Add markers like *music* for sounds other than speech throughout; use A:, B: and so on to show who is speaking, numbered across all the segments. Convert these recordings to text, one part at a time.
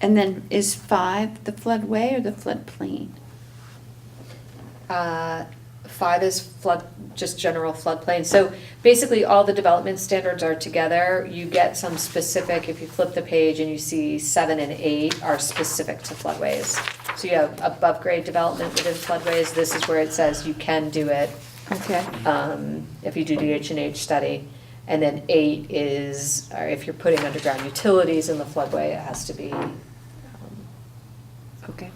A: And then is five the floodway or the floodplain?
B: Uh, Five is flood, just general floodplain. So basically, all the development standards are together. You get some specific, if you flip the page and you see seven and eight are specific to floodways. So you have above-grade development within floodways. This is where it says you can do it
A: Okay,
B: um, if you do the H and H study. And then eight is, or if you're putting underground utilities in the floodway, it has to be um,
A: okay.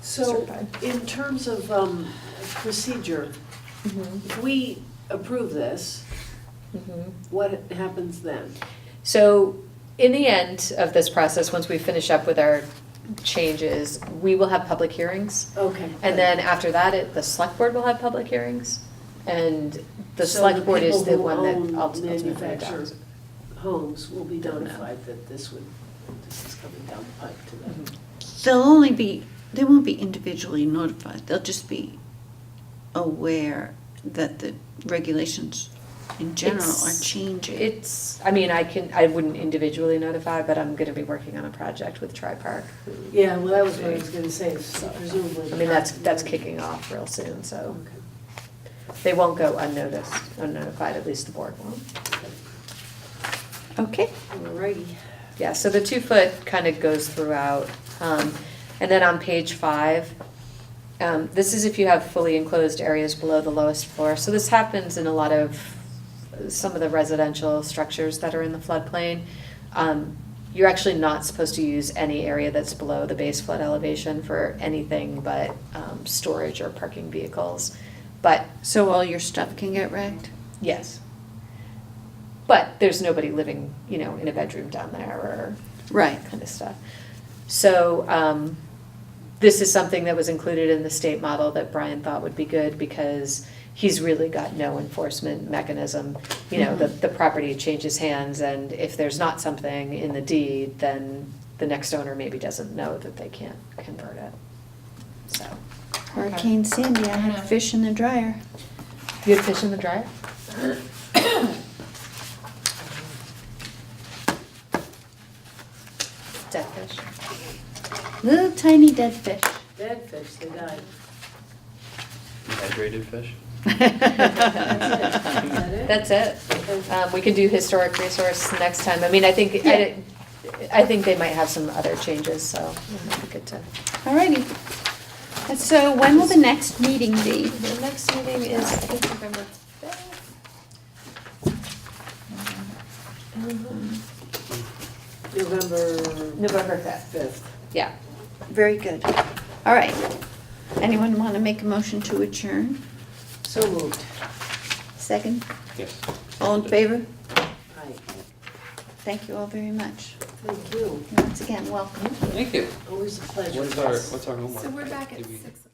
C: So
B: certified.
C: in terms of um, procedure, if we approve this,
B: Mhm.
C: what happens then?
B: So, in the end of this process, once we finish up with our changes, we will have public hearings.
C: Okay.
B: And then after that, it, the select board will have public hearings. And the
C: So
B: select board is
C: people
B: the
C: who
B: one that
C: own
B: ulti- ultimately
C: manufactured
B: adopts.
C: Homes will be
B: Don't know.
C: notified that this would, this is coming down the pipe to
B: Mm-hmm.
C: them.
A: They'll only be, they won't be individually notified, they'll just be aware that the regulations in general are
B: It's-
A: changing.
B: It's, I mean, I can, I wouldn't individually notify, but I'm gonna be working on a project with Tri Park.
C: Yeah, well, that was what I was gonna say, so presumably.
B: I mean, that's, that's kicking off real soon, so
C: Okay.
B: they won't go unnoticed, unnotified, at least the board won't.
A: Okay,
C: Alrighty.
B: Yeah, so the two foot kind of goes throughout. Um, and then on page five, um, this is if you have fully enclosed areas below the lowest floor. So this happens in a lot of some of the residential structures that are in the floodplain. Um, you're actually not supposed to use any area that's below the base flood elevation for anything but um, storage or parking vehicles. But
A: so all your stuff can get wrecked?
B: yes. But there's nobody living, you know, in a bedroom down there or
A: Right,
B: that kind of stuff. So, um, this is something that was included in the state model that Brian thought would be good because he's really got no enforcement mechanism. You know, the,
A: Mhm.
B: the property changes hands and if there's not something in the deed, then the next owner maybe doesn't know that they can't convert it, so.
A: Hurricane Sandy, I had fish in the dryer.
B: You had fish in the dryer? *coughs* Dead fish.
A: Little tiny dead fish.
C: Dead fish, they
B: *laughs*
C: died.
D: Dehydrated fish?
B: *laughs* That's it.
C: Okay.
B: Um, we can do historic resource next time. I mean, I think, I, I think they might have some other changes, so it might be good to.
A: Alrighty. And so when will the next meeting be?
B: The next meeting is, I think, November fifth.
C: November.
B: November fifth,
C: Fifth.
B: yeah.
A: Very good. All right. Anyone want to make a motion to adjourn?
C: So moved.
A: Second?
D: Yes.
A: All in favor?
C: Aye.
A: Thank you all very much.
C: Thank you.
A: Once again, welcome.
D: Thank you.
C: Always a pleasure.
D: What is our, what's our homework?
E: So we're back at
D: Did we-
E: six o'clock.